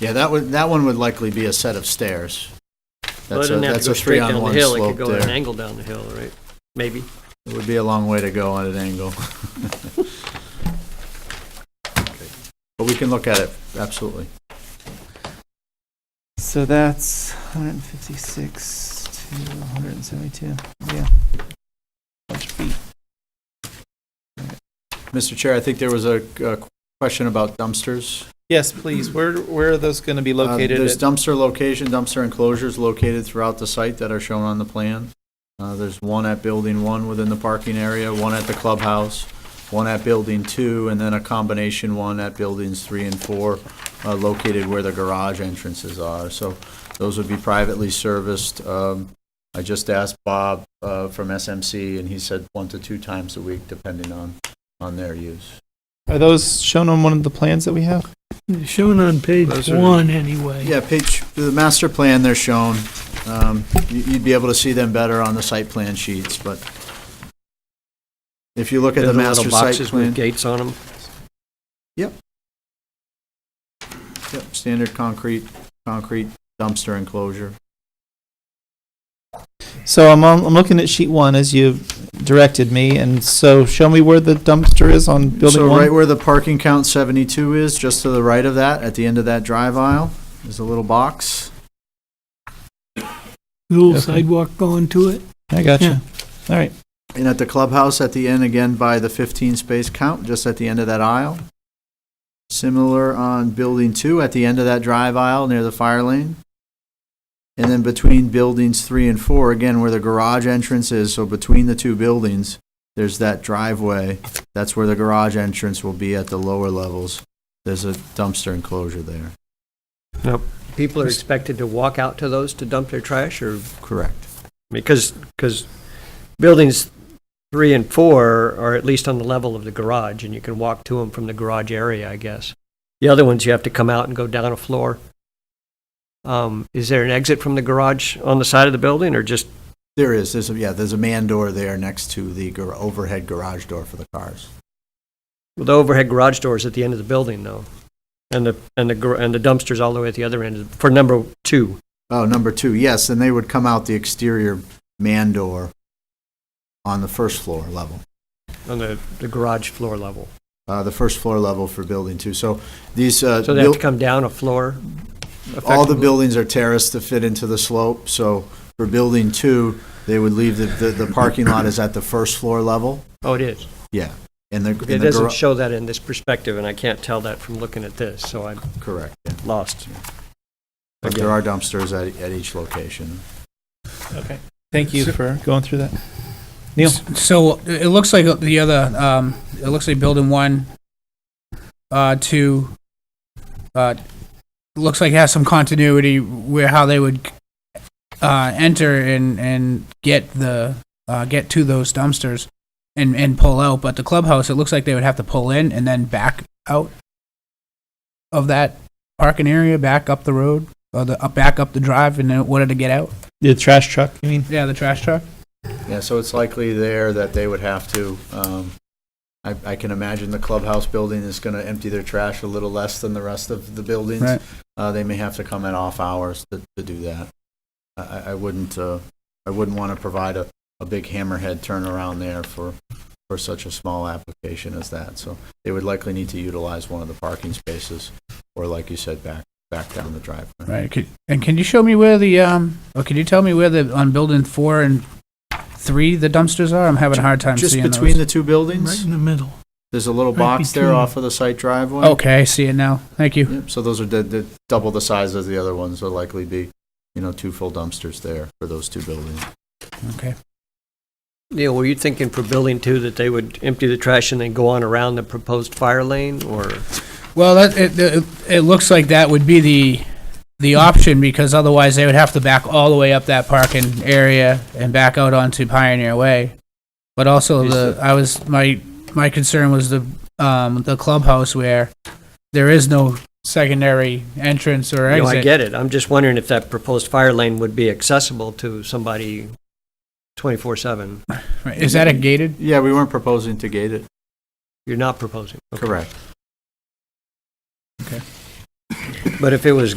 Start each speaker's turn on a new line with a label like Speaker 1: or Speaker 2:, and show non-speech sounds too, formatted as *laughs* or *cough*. Speaker 1: Yeah, that would, that one would likely be a set of stairs.
Speaker 2: Well,
Speaker 1: That's
Speaker 2: it
Speaker 1: a,
Speaker 2: doesn't have to
Speaker 1: that's
Speaker 2: go
Speaker 1: a
Speaker 2: straight down the
Speaker 1: three-on-one
Speaker 2: hill, it
Speaker 1: slope
Speaker 2: could go at an
Speaker 1: there.
Speaker 2: angle down the hill, right? Maybe.
Speaker 1: It would be a long way to go on an angle. *laughs* Okay. But we can look at it, absolutely.
Speaker 3: So that's 156 to 172. Yeah. Bunch of feet.
Speaker 1: Mr. Chair, I think there was a a question about dumpsters.
Speaker 3: Yes, please. Where where are those going to be
Speaker 1: Uh,
Speaker 3: located?
Speaker 1: There's
Speaker 3: at-
Speaker 1: dumpster location, dumpster enclosures located throughout the site that are shown on the plan. Uh, There's one at Building 1 within the parking area, one at the clubhouse, one at Building 2, and then a combination one at Buildings 3 and 4, uh, located where the garage entrances are. So those would be privately serviced. Um, I just asked Bob uh, from SMC, and he said one to two times a week, depending on, on their use.
Speaker 3: are those shown on one of the plans that we have?
Speaker 4: They're Shown on page one, anyway.
Speaker 1: Yeah, page, the master plan, they're shown. Um, you- You'd be able to see them better on the site plan sheets, but if you look at
Speaker 2: They're
Speaker 1: the
Speaker 2: little
Speaker 1: master site
Speaker 2: Boxes with
Speaker 1: plan,
Speaker 2: gates on them.
Speaker 1: yep, standard concrete, concrete dumpster enclosure.
Speaker 3: So I'm on, I'm looking at sheet one as you directed me, and so show me where the dumpster is on building
Speaker 1: So
Speaker 3: one.
Speaker 1: right where the parking count 72 is, just to the right of that, at the end of that drive aisle, is a little box.
Speaker 4: Little
Speaker 3: Okay.
Speaker 4: sidewalk going to it.
Speaker 3: I got
Speaker 4: Yeah.
Speaker 3: you. All right.
Speaker 1: And at the clubhouse at the end, again by the 15 space count, just at the end of that aisle. Similar on building two, at the end of that drive aisle near the fire lane. And then between buildings three and four, again where the garage entrance is, so between the two buildings, there's that driveway. That's where the garage entrance will be at the lower levels. There's a dumpster enclosure there.
Speaker 2: People are expected to walk out to those to dump their trash, or,
Speaker 1: Correct.
Speaker 2: because, because buildings three and four are at least on the level of the garage, and you can walk to them from the garage area, I guess. The other ones, you have to come out and go down a floor. Um, Is there an exit from the garage on the side of the building, or just
Speaker 1: There is, there's, a yeah, there's a man door there next to the gar- overhead garage door for the cars.
Speaker 2: Well, the overhead garage doors at the end of the building, though, and the and the gar- and the dumpsters all the way at the other end for number two.
Speaker 1: Oh, number two, yes, and they would come out the exterior man door on the first floor level,
Speaker 2: On the, the garage floor level.
Speaker 1: uh, the first floor level for building two. So these, uh,
Speaker 2: So they have to
Speaker 1: buil-
Speaker 2: come down a floor?
Speaker 1: all the
Speaker 2: effectively?
Speaker 1: buildings are terraced to fit into the slope, so for building two, they would leave, the, the the parking lot is at the first floor level,
Speaker 2: Oh, it is.
Speaker 1: yeah. And the,
Speaker 2: It
Speaker 1: and the
Speaker 2: doesn't
Speaker 1: garage,
Speaker 2: show that in this perspective, and I can't tell that from looking at this, so I'm
Speaker 1: correct.
Speaker 2: lost.
Speaker 1: But there are dumpsters at, at each location.
Speaker 3: Okay. Thank you for going through that. Neil.
Speaker 5: So it looks like the other, um, it looks like building one, uh, two, uh, looks like it has some continuity where how they would, uh, enter and, and get the, uh, get to those dumpsters and, and pull out. But the clubhouse, it looks like they would have to pull in and then back out of that parking area, back up the road, or the, up, back up the drive in order to get out.
Speaker 3: The trash truck, you mean?
Speaker 5: Yeah, the trash truck.
Speaker 1: Yeah, so it's likely there that they would have to, um, I, I can imagine the clubhouse building is gonna empty their trash a little less than the rest of the buildings.
Speaker 5: Right.
Speaker 1: Uh, they may have to come at off hours to, to do that. I- I, I wouldn't, uh, I wouldn't wanna provide a, a big hammerhead turnaround there for, for such a small application as that. So they would likely need to utilize one of the parking spaces, or like you said, back, back down the driveway.
Speaker 5: Right. could- And can you show me where the, um, or can you tell me where the, on building four and three, the dumpsters are? I'm having a hard time
Speaker 1: Just
Speaker 5: seeing
Speaker 1: between
Speaker 5: those.
Speaker 1: the two
Speaker 4: Right
Speaker 1: buildings,
Speaker 4: in the middle.
Speaker 1: there's a little
Speaker 4: Right
Speaker 1: box there
Speaker 4: between.
Speaker 1: off of the site driveway.
Speaker 5: Okay, I see it now. Thank you.
Speaker 1: Yep, so those are the, the, double the size of the other ones, will likely be, you know, two full dumpsters there for those two buildings.
Speaker 2: Neil, were you thinking for building two that they would empty the trash and then go on around the proposed fire lane, or?
Speaker 5: Well, that, it, it, it looks like that would be the, the option because otherwise they would have to back all the way up that parking area and back out onto Pioneer Way. But also
Speaker 2: Is
Speaker 5: the, I was, my, my concern was the, um, the clubhouse where there is no secondary entrance or
Speaker 2: No,
Speaker 5: exit.
Speaker 2: I get it. I'm just wondering if that proposed fire lane would be accessible to somebody twenty-four seven.
Speaker 5: Right, Is that a gated?
Speaker 1: Yeah, we weren't proposing to gate it.
Speaker 2: You're not proposing.
Speaker 1: Correct.
Speaker 2: But if it was